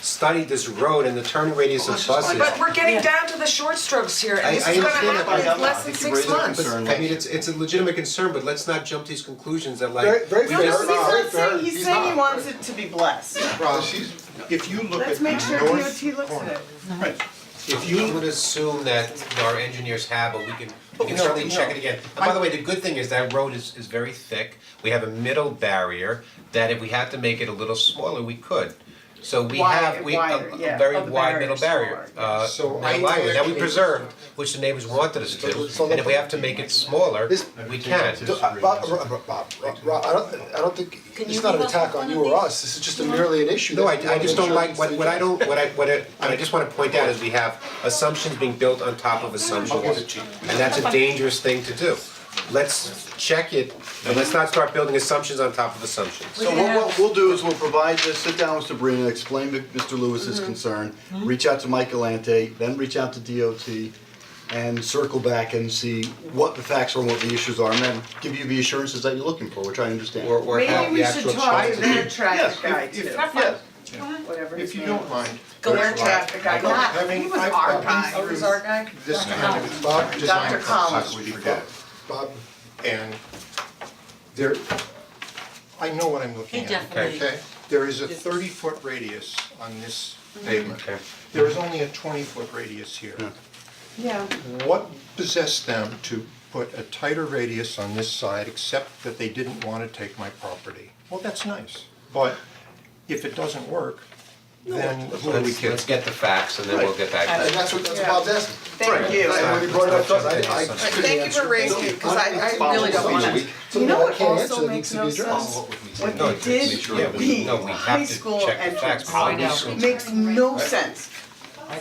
study this road and the turning radius of Let's buses. just find But we're getting down to the short strokes here, I- and this I is gonna understand that, happen but in less than six months. But I mean, it's it's a legitimate concern, but let's not jump to these conclusions that like. Very- very we fair. just- He's not He's saying, he's saying he wants it to be blessed. Rob, If you look at Let's the make sure north DOT looks at corner. it. Right. If you would assume that our engineers have, but we can, we can certainly check it again. And by the way, the good thing is that road is is very thick, we have a middle barrier, that if we had to make it a little smaller, we could. So we Wider- have, we, a wider, a yeah, very of the wide middle barrier, barrier, smaller, uh, So middle I- barrier that we preserved, which the neighbors wanted us to. so And if we have to make it smaller, This- we can. Do- uh, Bob, Rob, Rob, Rob, Rob, I don't, I don't think, it's not an attack on you or us, this is just a merely an issue. No, I that we I just wanna don't make like, sure what what I don't, what I, what I, what I just wanna point out is we have assumptions being built on top of assumptions. And that's a dangerous thing to do. Let's check it, and let's not start building assumptions on top of assumptions. So what what we'll do is we'll provide this, sit down with Sabrina, explain to Mr. Lewis's concern, reach out to Mike Galante, then reach out to DOT and circle back and see what the facts are, and what the issues are, and then give you the assurances that you're looking for, which I understand. Or or have Maybe we the actual should talk to chances. their traffic guy Yes, if- too, if, yes, whatever his if you name don't is. mind. Their traffic guy, Not- God, he was I've- our I've been guy, he was our guy, This kind of Bob, just- Dr. Collins. we forget. Bob, and there, I know what I'm looking He at. definitely- Okay, there is a thirty foot radius on this pavement. Okay. There is only a twenty foot radius here. yeah. What possessed them to put a tighter radius on this side, except that they didn't wanna take my property? Well, that's nice, but if it doesn't work, then who do we Let's kidding? let's get the facts and then we'll get back and to it. that's what, that's what Bob's asking. Thank you. And when he brought it up to us, I, I. But Thank you for raising it, cause I, I really don't wanna. You know what also makes no sense? What No, they it's- did Yeah, we, no, we with have high to school check the facts. entrance probably I know. soon. makes no sense.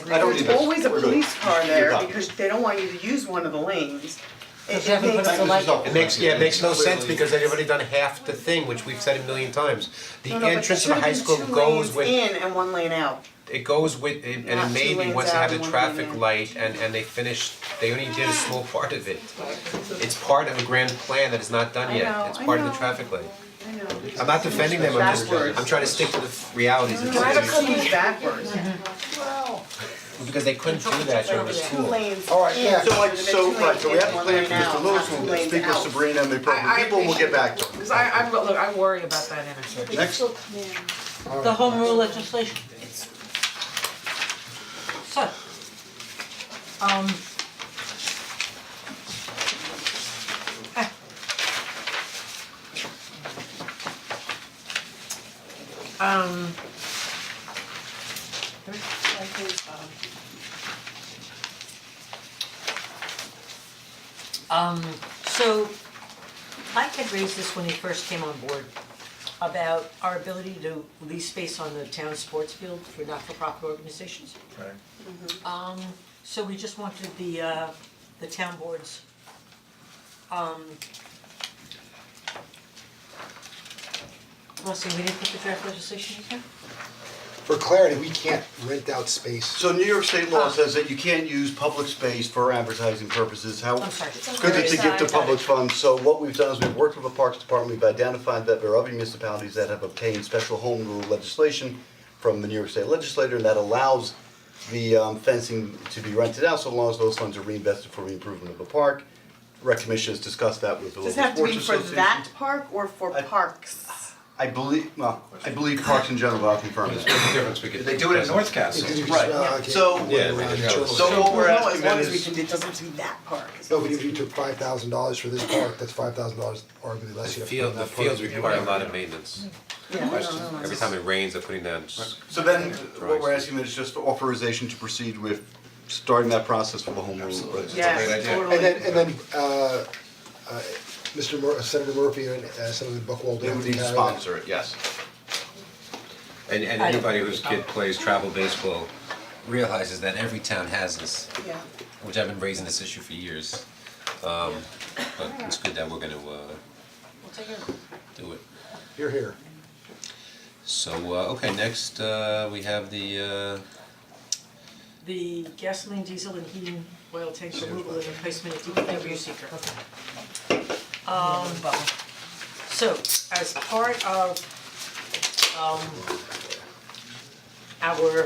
There's always a police car there because they don't want you to use one of the lanes. It it haven't put makes, a select- It makes, yeah, it makes no sense because they've already done half the thing, which we've said a million times. The no, no, but there entrance of should a high have school been two goes lanes with in and one lane out. it goes with, and Not it two may be lanes once they out have the and one traffic lane in. light and and they finished, they only did a small part of it. It's part of a grand plan that is not done I know, yet, it's I part of the know. traffic light. I know. I'm not defending them, I'm just, Backwards. I'm trying to stick to the realities of the Drive a situation, couple backwards, because they couldn't do that when it was two cool. lanes All right, in. yeah. So like, There's so, two right, so we lanes have in, to plan one lane for Mr. out, Lewis, two we'll lanes speak with out. Sabrina and the appropriate I- I people, and we'll get back to them. Cause I, I, look, I worry about that intersection. Next. The home rule legislation, it's. So. Um. ah. Um. Um, so Mike had raised this when he first came on board about our ability to lease space on the town sports field for not-for-profit organizations. Right. Um, so we just wanted the uh, the town boards, um. Well, see, we didn't put the draft legislation in here? For clarity, we can't rent out space. So New York state law says that you can't use public space for advertising purposes, how I'm sorry. it's good that to give to public funds, so what we've done is we've worked with the Parks Department, we've identified that there are other municipalities that have obtained special home rule legislation from the New York State Legislature, and that allows the um, fencing to be rented out, so long as those funds are reinvested for the improvement of the park. Rec Commission has discussed that with the local Does sports it have to be association. for that park or for parks? I believe, well, I believe parks in general, I'll confirm this. difference we could- They do it in North Castle. Because you Right, just, uh, okay, so- we're Yeah, around we the can- church. So what we're No, asking as then long as we is, can, it doesn't have to be that park. as No, long but as if you took five thousand dollars for this park, that's five thousand dollars arguably less you have to put Field, in the that park. fields require a lot of maintenance. we- Yeah, I don't know. Every time it rains, they're putting down s- so then what we're asking is just authorization to proceed with starting that process for the home rule. Yes, idea. totally. And then, and then, uh, uh, Mr. Mur- Senator Murphy and uh, Senator Buckwalter. They would need to have- sponsor it, yes. And and I don't- anybody whose kid plays travel baseball realizes that every town has this, Yeah. which I've been raising this issue for years. Um, but it's good that we're gonna uh We'll take it. do it. You're here. So, uh, okay, next, uh, we have the, uh, The gasoline, diesel and heating oil tank removal and replacement at DPW seeker. Um, so, as part of, um, our